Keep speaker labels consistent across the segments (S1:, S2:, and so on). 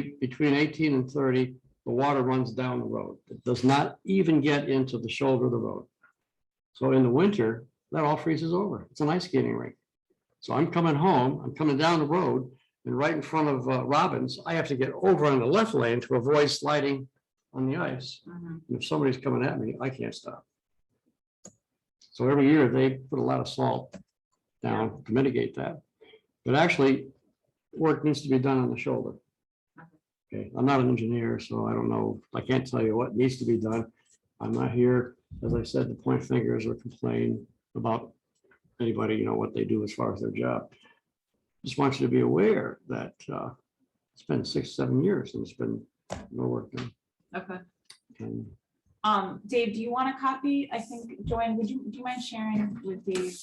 S1: be- between eighteen and thirty, the water runs down the road. It does not even get into the shoulder of the road. So in the winter, that all freezes over. It's an ice skating rink. So I'm coming home, I'm coming down the road and right in front of uh, Robbins, I have to get over on the left lane to avoid sliding on the ice.
S2: Mhm.
S1: And if somebody's coming at me, I can't stop. So every year they put a lot of salt down to mitigate that. But actually, work needs to be done on the shoulder. Okay, I'm not an engineer, so I don't know, I can't tell you what needs to be done. I'm not here, as I said, to point fingers or complain about anybody, you know, what they do as far as their job. Just want you to be aware that uh, it's been six, seven years and it's been no work done.
S2: Okay.
S1: And
S2: Um, Dave, do you want a copy? I think, Joanne, would you, do you mind sharing with Dave?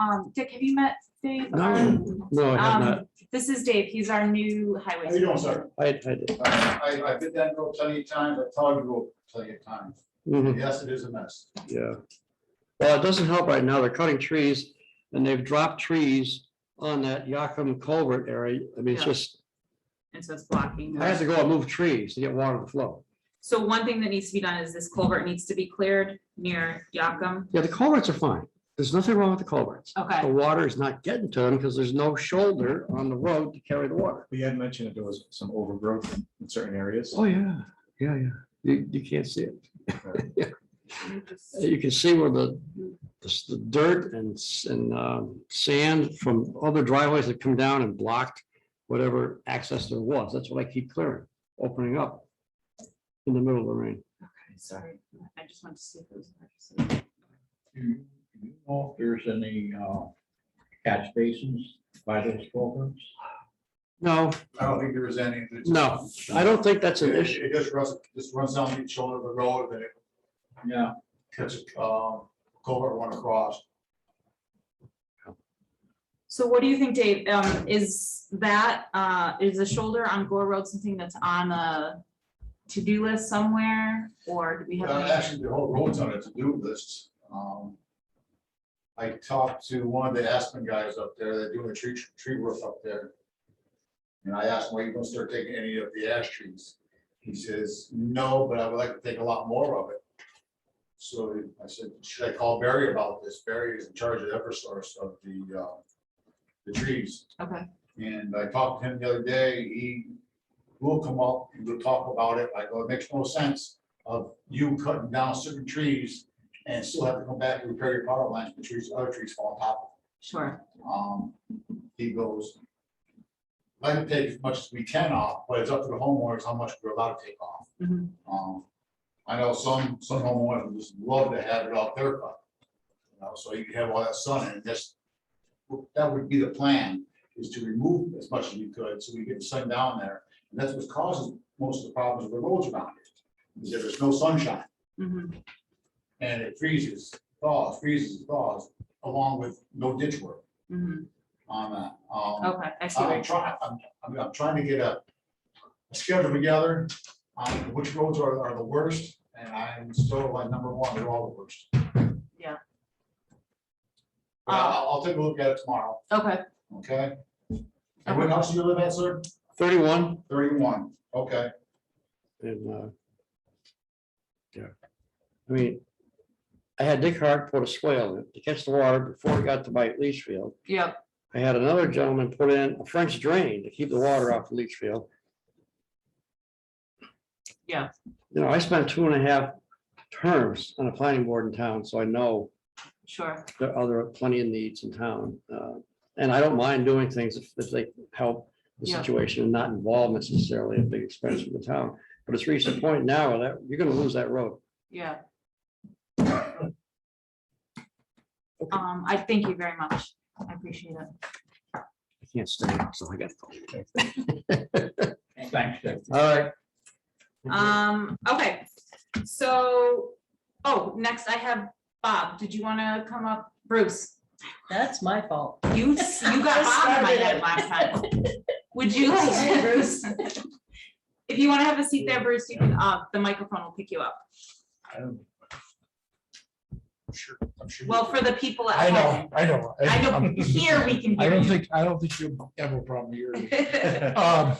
S2: Um, Dick, have you met Dave?
S1: No,
S2: Um,
S1: No, I have not.
S2: This is Dave. He's our new highway.
S3: How you doing,
S2: supervisor.
S3: sir?
S1: I, I did.
S3: Uh, I, I- I've been that road plenty of times, I've told you road plenty of times.
S1: Mhm,
S3: Yes, it is a mess.
S1: Yeah. Well, it doesn't help right now. They're cutting trees and they've dropped trees on that Yakum culvert area. I mean, it's
S2: Yeah.
S1: just,
S2: And so it's blocking.
S1: I have to go and move trees to get water to flow.
S2: So one thing that needs to be done is this culvert needs to be cleared near Yakum.
S1: Yeah, the culverts are fine. There's nothing wrong with the culverts. The
S2: Okay,
S1: water is not getting to them because there's no shoulder on the road to carry the water.
S4: We had mentioned that there was some overgrowth in certain areas.
S1: Oh, yeah, yeah, yeah. You, you can't see it. Yeah. You can see where the, the s- the dirt and, s- and um, sand from other driveways that come down and blocked whatever access there was. That's what I keep clearing, opening up in the middle of the rain.
S2: Okay, sorry. I just wanted to see if it was.
S5: Do you do you know if there's any uh, catch basins by those culverts?
S1: No,
S3: I don't think there is any. that's-
S1: no, I don't think that's an
S3: It
S1: issue.
S3: it just runs, just runs down the shoulder of the road, and it
S5: Yeah.
S3: cuts, um, culvert one across.
S2: So what do you think, Dave? Um, is that, uh, is the shoulder on Gore Road something that's on a to-do list somewhere? Or do we have?
S3: Uh,
S2: any-
S3: Actually, the whole road's on a to-do list. Um, I talked to one of the Aspen guys up there, they're doing a tree, tree roof up there. And I asked, well, you gonna start taking any of the ash trees? He says, no, but I would like to take a lot more of it. So I said, should I call Barry about this? Barry is in charge of Eversource of the, uh, the trees.
S2: Okay,
S3: And I talked to him the other day, he will come up, and we'll talk about it, I go, it makes no sense of you cutting down certain trees and still have to come back and repair your power lines, the trees, other trees fall on top
S2: sure.
S3: of them. Um, he goes, I can take as much as we can off, but it's up to the homeowners how much we're allowed to take off.
S2: Mhm.
S3: Um, I know some, some homeowners would just love to have it off their cut. You know, so you can have all that sun and just, that would be the plan, is to remove as much as you could, so we get the sun down there. And that's what causes most of the problems with the roads around here, is there is no sunshine,
S2: Mhm.
S3: and it freezes, thaws, freezes, thaws, along with no ditch work
S2: Mhm.
S3: on that. Um,
S2: Okay, I see.
S3: I'm
S2: where-
S3: trying, I'm, I'm, I'm trying to get a a schedule together on which roads are, are the worst, and I'm still like number one, they're all the worst.
S2: Yeah. Um,
S3: But I'll, I'll take a look at it tomorrow,
S2: Okay,
S3: okay? And what else do you live at, sir?
S1: Thirty-one
S3: Thirty-one, okay.
S1: And, uh, yeah, I mean, I had Dick Hart put a swale in it to catch the water before it got to my leach field.
S2: yep,
S1: I had another gentleman put in a French drain to keep the water off the leach field.
S2: Yeah.
S1: You know, I spent two and a half terms on a planning board in town, so I know
S2: sure.
S1: there are other plenty of needs in town. uh, And I don't mind doing things if, if they help the
S2: Yeah.
S1: situation and not involve necessarily a big expense for the town. But it's reached a point now where that, you're gonna lose that road.
S2: Yeah.
S1: Okay.
S2: Um, I thank you very much. I appreciate it.
S1: I can't stay, so I gotta go.
S5: Thanks, Dick.
S1: All right.
S2: Um, okay, so, oh, next I have Bob. Did you want to come up? Bruce?
S6: That's my fault.
S2: You, s- you got Bob in my head last time. Would you like to, Bruce? If you want to have a seat there, Bruce, you can, uh, the microphone will pick you up.
S3: I'm sure, I'm sure.
S2: Well, for the people
S7: I
S2: at
S7: know,
S2: home,
S7: I know.
S2: I don't, here we can
S7: I
S2: hear
S7: don't
S2: you.
S7: think, I don't think you have a problem here.
S2: Okay,
S7: Um,